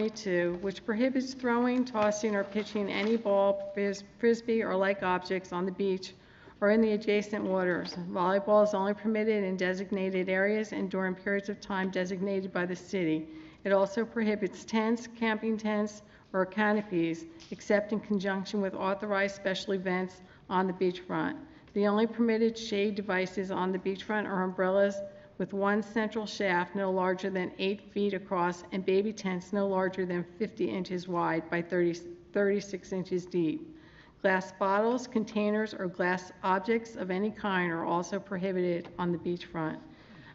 22, which prohibits throwing, tossing, or pitching any ball, fris- frisbee, or like objects on the beach or in the adjacent waters. Volleyball is only permitted in designated areas and during periods of time designated by the city. It also prohibits tents, camping tents, or canopies, except in conjunction with authorized special events on the beachfront. The only permitted shade devices on the beachfront are umbrellas with one central shaft no larger than eight feet across and baby tents no larger than 50 inches wide by 30 36 inches deep. Glass bottles, containers, or glass objects of any kind are also prohibited on the beachfront.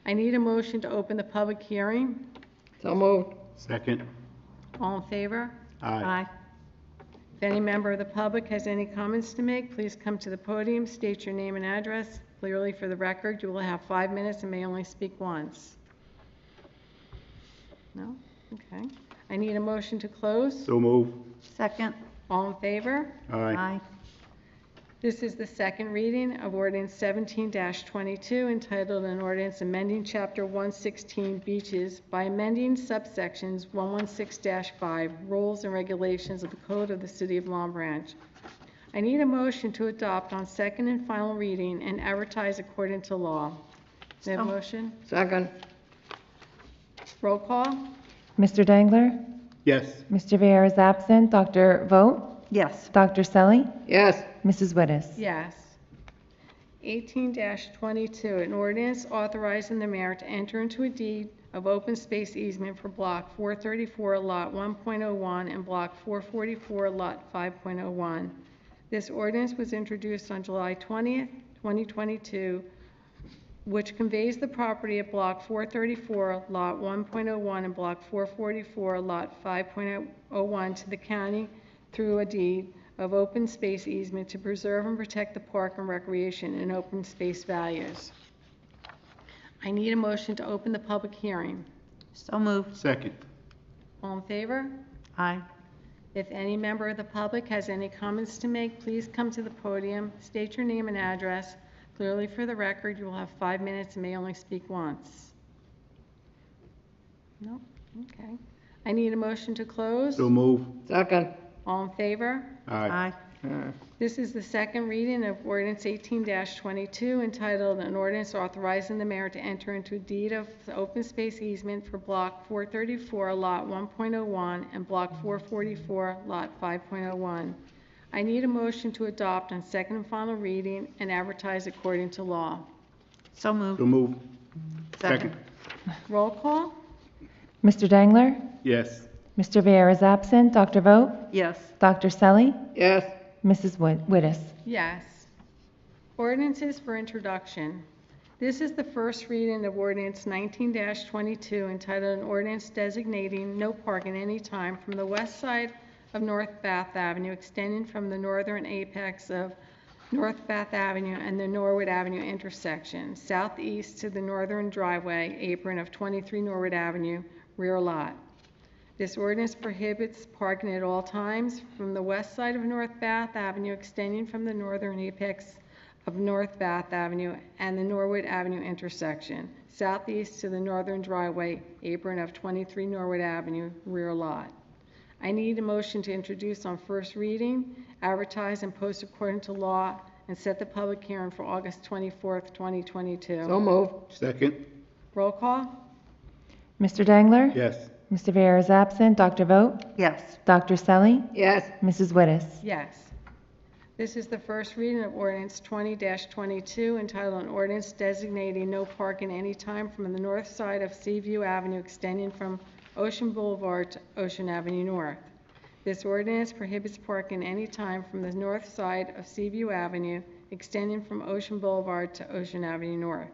I need a motion to open the public hearing. So moved. Second. All in favor? Aye. If any member of the public has any comments to make, please come to the podium, state your name and address clearly for the record. You will have five minutes and may only speak once. No? Okay. I need a motion to close. So move. Second. All in favor? Aye. This is the second reading of ordinance 17-22 entitled an ordinance amending Chapter 116 Beaches by amending subsections 116-5 Rules and Regulations of the Code of the City of Long Branch. I need a motion to adopt on second and final reading and advertise according to law. May I have a So- motion? Second. Roll call? Mr. Dangler? Yes. Mr. Viera is absent. Dr. Vogt? Yes. Dr. Selly? Yes. Mrs. Wittes? Yes. 18-22, an ordinance authorizing the mayor to enter into a deed of open space easement for Block 434, Lot 1.01, and Block 444, Lot 5.01. This ordinance was introduced on July 20th, 2022, which conveys the property at Block 434, Lot 1.01, and Block 444, Lot 5.01 to the county through a deed of open space easement to preserve and protect the park and recreation and open space values. I need a motion to open the public hearing. So moved. Second. All in favor? Aye. If any member of the public has any comments to make, please come to the podium, state your name and address. Clearly for the record, you will have five minutes and may only speak once. No? Okay. I need a motion to close. So move. Second. All in favor? Aye. Mm. This is the second reading of ordinance 18-22 entitled An Ordinance Authorizing the Mayor to Enter into a Deed of Open Space Easement for Block 434, Lot 1.01, and Block 444, Lot 5.01. I need a motion to adopt on second and final reading and advertise according to law. So So moved. move. Second. Roll call? Mr. Dangler? Yes. Mr. Viera is absent. Dr. Vogt? Yes. Dr. Selly? Yes. Mrs. Wit- Wittes? Yes. Ordinances for introduction. This is the first reading of ordinance 19-22 entitled an ordinance designating no parking any time from the west side of North Bath Avenue extending from the northern apex of North Bath Avenue and the Norwood Avenue intersection, southeast to the northern driveway apron of 23 Norwood Avenue, rear lot. This ordinance prohibits parking at all times from the west side of North Bath Avenue extending from the northern apex of North Bath Avenue and the Norwood Avenue intersection, southeast to the northern driveway apron of 23 Norwood Avenue rear lot. I need a motion to introduce on first reading, advertise and post according to law, and set the public hearing for August 24th, 2022. So moved. Second. Roll call? Mr. Dangler? Yes. Mr. Viera is absent. Dr. Vogt? Yes. Dr. Selly? Yes. Mrs. Wittes? Yes. This is the first reading of ordinance 20-22 entitled an ordinance designating no parking any time from the north side of Seaview Avenue extending from Ocean Boulevard to Ocean Avenue North. This ordinance prohibits parking any time from the north side of Seaview Avenue extending from Ocean Boulevard to Ocean Avenue North.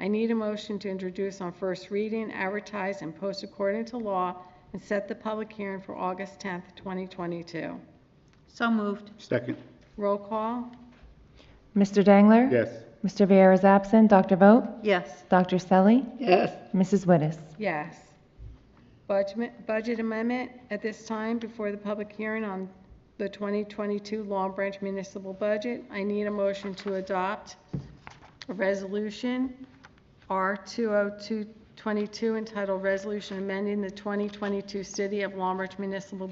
I need a motion to introduce on first reading, advertise, and post according to law, and set the public hearing for August 10th, 2022. So moved. Second. Roll call? Mr. Dangler? Yes. Mr. Viera is absent. Dr. Vogt? Yes. Dr. Selly? Yes. Mrs. Wittes? Yes. Budget budget amendment at this time before the public hearing on the 2022 Long Branch municipal budget. I need a oh motion to adopt a resolution R 2022022 22 entitled Resolution Amending the 2022 City of Long March Municipal